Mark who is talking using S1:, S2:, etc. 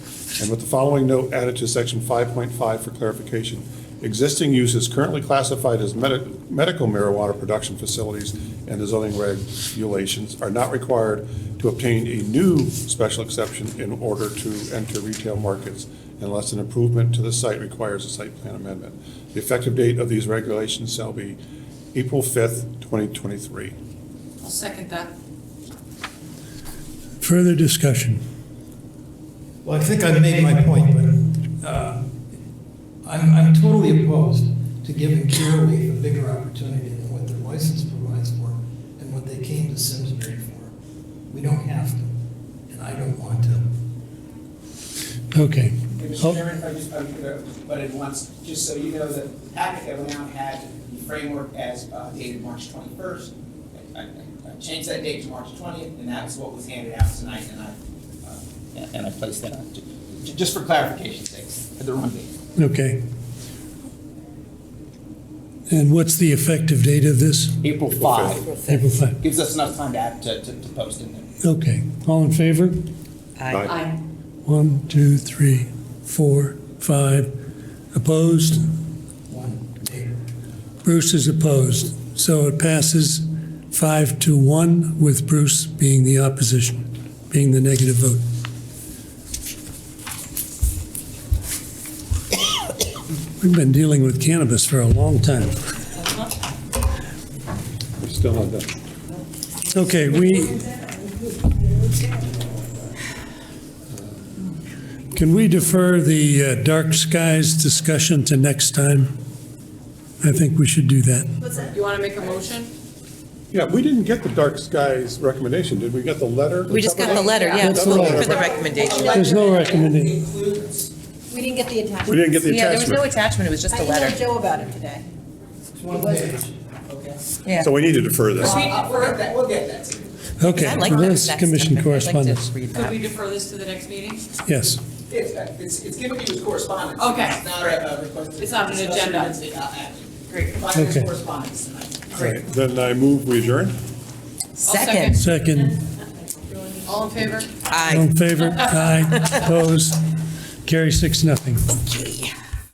S1: and with the following note added to section 5.5 for clarification. Existing use is currently classified as medi- medical marijuana production facilities, and the zoning regulations are not required to obtain a new special exception in order to enter retail markets unless an improvement to the site requires a site plan amendment. The effective date of these regulations shall be April 5th, 2023.
S2: I'll second that.
S3: Further discussion?
S4: Well, I think I made my point, but uh, I'm, I'm totally opposed to giving Curaleaf a bigger opportunity than what their license provides for and what they came to Simsbury for. We don't have to, and I don't want to.
S3: Okay.
S5: Mr.
S3: Oh,
S5: Chairman, if I just, I'm gonna butt in once, just so you know, the packet that went out had the framework as uh, dated March twenty-first. I I changed that date to March twentieth, and that's what was handed out tonight, and I, uh, and- and I placed that on, ju- ju- just for clarification's sake, at the wrong date.
S3: okay. And what's the effective date of this?
S5: April five,
S3: April 5.
S5: gives us enough time to add, to, to to post in there.
S3: Okay. All in favor?
S1: Aye.
S2: Aye.
S3: One, two, three, four, five. Opposed?
S4: One, neighbor.
S3: Bruce is opposed. So it passes five to one with Bruce being the opposition, being the negative vote. We've been dealing with cannabis for a long time.
S1: We're still not done.
S3: Okay, we. Can we defer the uh, dark skies discussion to next time? I think we should do that.
S2: You want to make a motion?
S1: Yeah, we didn't get the dark skies recommendation, did we? We got the letter?
S6: We just got the letter, yeah,
S3: That's
S6: we're
S3: the
S6: looking
S1: letter.
S6: for the recommendation.
S3: There's no recommendation.
S5: Includes
S7: We didn't get the attachment.
S1: We didn't get the
S6: Yeah, there was no
S1: attachment,
S6: attachment, it was just a
S7: I emailed
S6: letter.
S7: Joe about it today.
S4: It's one page.
S5: Okay.
S6: Yeah.
S1: so we need to defer this.
S5: Uh, We'll get that, we'll get that to you.
S3: Okay,
S6: I like
S3: so
S6: that
S3: that's
S6: text. I'd
S3: commission
S6: like to
S3: correspondence.
S6: read
S2: Could
S6: that.
S2: we defer this to the next meeting?
S3: Yes.
S5: It's, uh, it's, it's given to you as correspondence.
S2: Okay.
S5: It's not a a request.
S2: It's not an
S5: Discussion,
S2: agenda.
S5: it's, uh, action.
S2: Great.
S5: Five minutes
S3: Okay.
S5: correspondence tonight.
S1: Right, Then I move we adjourn?
S2: second.
S6: Second.
S3: Second,
S2: All in favor?
S3: all in favor? Aye. Opposed? Carry six, nothing.
S6: Aye.